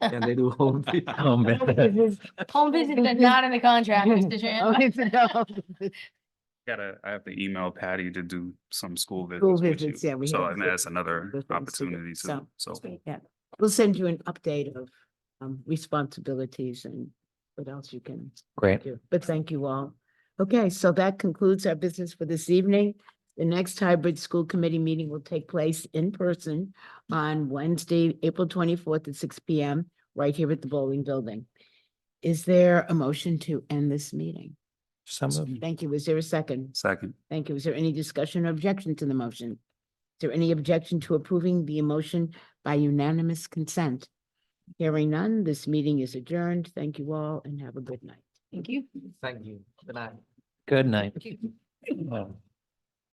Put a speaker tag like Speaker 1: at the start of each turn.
Speaker 1: and they do home. vi-
Speaker 2: Home visit.
Speaker 3: Home visits are not in the contract, Mr. Chan.
Speaker 4: Gotta, I have to email Patty to do some school visits.
Speaker 5: School
Speaker 4: with
Speaker 5: visits,
Speaker 4: you.
Speaker 5: yeah, we
Speaker 4: So
Speaker 5: have
Speaker 4: and that's another
Speaker 5: other things to do,
Speaker 4: opportunity to, so.
Speaker 5: Yeah, we'll send you an update of um responsibilities and what else you can
Speaker 2: Great.
Speaker 5: do, but thank you all. Okay, so that concludes our business for this evening. The next hybrid school committee meeting will take place in person on Wednesday, April twenty-fourth at six P M, right here at the bowling building. Is there a motion to end this meeting?
Speaker 2: Some of.
Speaker 5: Thank you. Is there a second?
Speaker 4: Second,
Speaker 5: Thank you. Is there any discussion or objection to the motion? Is there any objection to approving the motion by unanimous consent? Hearing none, this meeting is adjourned. Thank you all and have a good night.
Speaker 3: Thank you.
Speaker 1: Thank you. Good night.
Speaker 2: Good night. Oh.